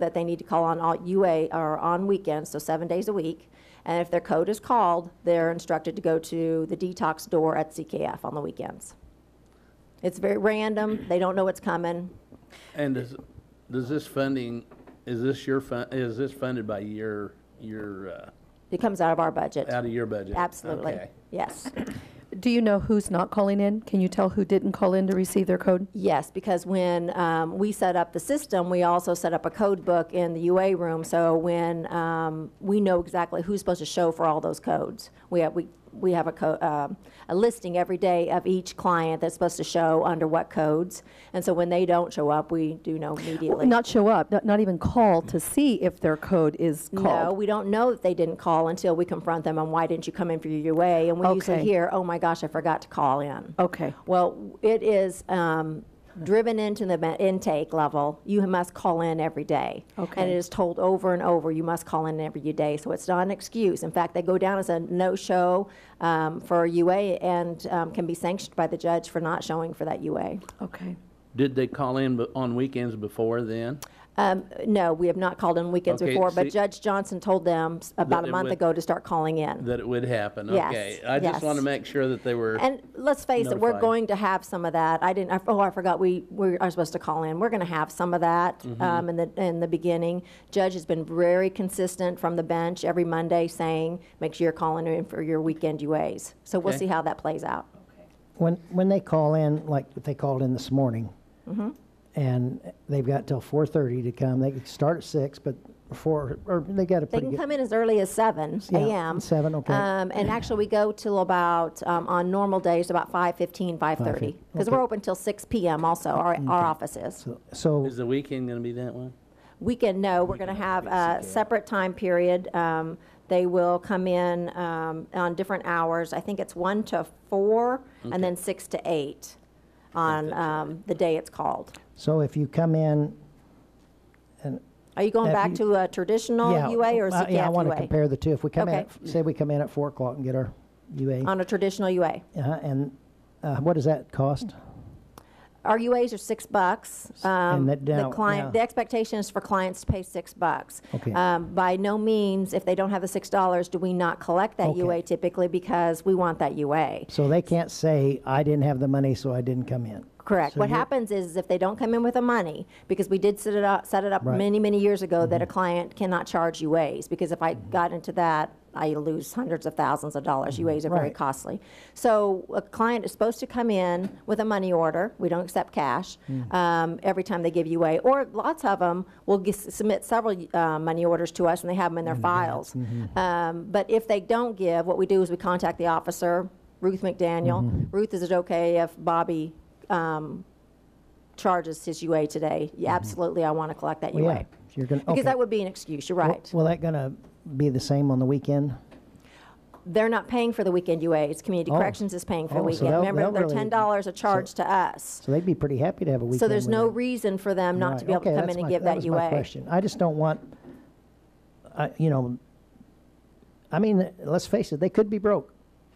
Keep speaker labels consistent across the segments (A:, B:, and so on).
A: that they need to call on all UA or on weekends, so seven days a week. And if their code is called, they're instructed to go to the detox door at CKF on the weekends. It's very random. They don't know what's coming.
B: And does, does this funding, is this your fun, is this funded by your, your, uh,
A: It comes out of our budget.
B: out of your budget?
A: Absolutely.
B: Okay.
A: Yes.
C: Do you know who's not calling in? Can you tell who didn't call in to receive their code?
A: Yes, because when um, we set up the system, we also set up a code book in the UA room. So when um, we know exactly who's supposed to show for all those codes, we have we we have a co- um a listing every day of each client that's supposed to show under what codes. And so when they don't show up, we do know immediately.
C: Not show up, not, not even call to see if their code is
A: No,
C: called.
A: we don't know that they didn't call until we confront them on why didn't you come in for your UA? And we usually
C: Okay.
A: hear, oh my gosh, I forgot to call in.
C: Okay.
A: Well, it is um, driven into the ma- intake level. You must call in every day. And
C: Okay.
A: it is told over and over, you must call in every day. So it's not an excuse. In fact, they go down as a no-show um, for a UA and um, can be sanctioned by the judge for not showing for that UA.
C: Okay.
B: Did they call in be- on weekends before then?
A: Um, No, we have not called in weekends
B: Okay,
A: before, but
B: see-
A: Judge Johnson told them s- about
B: That
A: a
B: it
A: month
B: would-
A: ago to start calling in.
B: That it would happen?
A: Yes,
B: Okay. I just
A: yes.
B: want to make sure that they were,
A: And let's face it, we're
B: Notified.
A: going to have some of that. I didn't, I- oh, I forgot, we, we are supposed to call in. We're going to have some of that
D: Mm-hmm.
A: um, in the, in the beginning. Judge has been very consistent from the bench every Monday saying, make sure you're calling in for your weekend UAs. So we'll
B: Okay.
A: see how that plays out.
D: When, when they call in, like what they called in this morning,
A: Mm-hmm.
D: and they've got till four thirty to come, they could start at six, but before, or they got a
A: They
D: pretty
A: can
D: good.
A: come in as early as seven
D: Yeah,
A: AM.
D: seven, okay.
A: Um, And actually, we go till about, um, on normal days, about 5:15, 5:30. Because
D: okay. Mm-hmm.
A: we're open till six PM also, our, our office is.
D: So,
B: is the weekend going to be that one?
A: Weekend, no, we're going to have a separate time period. Um, They will come in um, on different hours. I think it's 1 to 4, and then 6 to 8 on um, the day it's called.
D: so if you come in,
A: Are you going
D: Have
A: back
D: you-
A: to Oh, a traditional
D: yeah.
A: UA or
D: I- Yeah, I want to
A: CCAF UA?
D: compare the two. If we come in,
A: Okay.
D: at f- say we come in at four o'clock and get our UA,
A: On a traditional UA.
D: uh-huh, and uh, what does that cost?
A: Our UAs are six bucks. Um,
D: that
A: The
D: down-
A: client,
D: yeah.
A: the expectation is for clients to pay six bucks.
D: Okay.
A: Um, By no means, if they don't have the six dollars, do we not collect that
D: Okay.
A: UA typically because we want that UA.
D: So they can't say, I didn't have the money, so I didn't come in.
A: Correct.
D: So
A: What
D: you're-
A: happens is if they don't come in with the money, because we did set it up, set it up
D: Right. Mm-hmm.
A: many, many years ago that a client cannot charge UAs, because if I got into that, I lose hundreds of thousands of dollars. UAs are very
D: Mm-hmm. Right.
A: costly. So a client is supposed to come in with a money order. We don't accept cash
D: Mm.
A: um, every time they give UA, or lots of them will g- submit several uh, money orders to us and they have them in their files.
D: Mm-hmm.
A: Um, But if they don't give, what we do is we contact the officer, Ruth
D: Mm-hmm.
A: McDaniel. Ruth, is it okay if Bobby charges his UA today, yeah, absolutely, I want to collect that
D: Well,
A: UA.
D: Mm-hmm. Oh, Yeah, if you're gonna, okay.
A: Because that would be an excuse, you're
D: Well-
A: right.
D: Will that gonna be the same on the weekend?
A: They're not paying for the weekend UAs. Community
D: Oh.
A: Corrections is paying for the
D: Oh, so
A: weekend.
D: they'll-
A: Remember,
D: they'll
A: they're
D: really-
A: ten dollars a charge to us.
D: So they'd be pretty happy to have a weekend.
A: So there's
D: with
A: no
D: it.
A: reason for them not to
D: Right,
A: be able to
D: okay,
A: come
D: that's
A: in and
D: my-
A: give that
D: was my
A: UA.
D: question. I just don't want, I, you know, I mean, let's face it, they could be broke.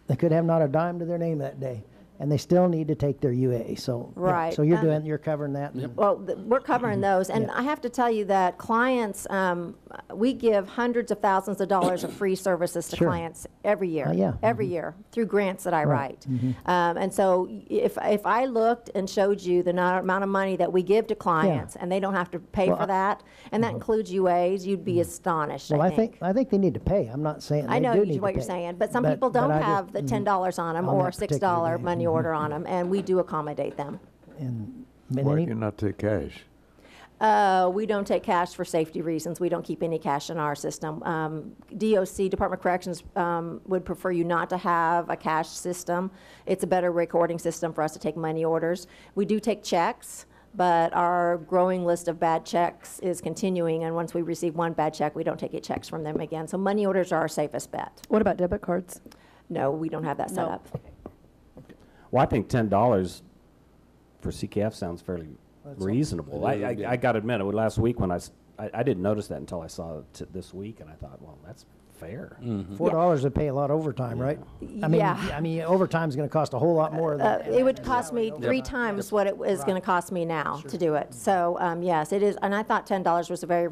D: They could have not a dime to their name that day, and they still need to take their UA, so. yeah,
A: Right,
D: So you're
A: uh,
D: doing, you're covering that. and-
A: Well, th- we're covering
D: Mm-hmm.
A: those, and I have to tell you that clients, um, we give hundreds of thousands of dollars of free services to
D: Sure.
A: clients every year.
D: Uh, yeah. Mm-hmm.
A: Every year, through grants that I write. Um, And so y- if, if I looked and showed you the no- amount of money that we give to clients, and they don't have to pay
D: Well,
A: for
D: I- Mm-hmm.
A: that, and that includes UAs, you'd be astonished,
D: Well,
A: I think.
D: I think they need to pay. I'm not saying
A: I
D: they do need
A: know
D: to pay.
A: you- what you're saying, but some people
D: but
A: don't
D: I just- Mm-hmm.
A: have the $10 on them
D: On
A: or
D: that particular
A: $6
D: day. Mm-hmm.
A: money order on them, and we do accommodate them.
D: and- but
E: Why
D: any-
E: do you not take cash?
A: Uh, we don't take cash for safety reasons. We don't keep any cash in our system. Um, DOC, Department of Corrections, um, would prefer you not to have a cash system. It's a better recording system for us to take money orders. We do take checks, but our growing list of bad checks is continuing, and once we receive one bad check, we don't take any checks from them again. So money orders are our safest bet.
C: What about debit cards?
A: No, we don't have that set
C: No.
A: up.
F: Well, I think ten dollars for CKF sounds fairly reasonable. I, I, I gotta admit, it was last week when I, s- I- I didn't notice that until I saw it t- this week, and I thought, well, that's fair.
D: Four dollars would pay a lot overtime, right? I mean,
A: Yeah.
D: I mean, overtime's gonna cost a whole lot more
A: Uh,
D: than.
A: It would cost me three times what it is going to cost me now to do it. So, um, yes, it is, and I thought $10 was a very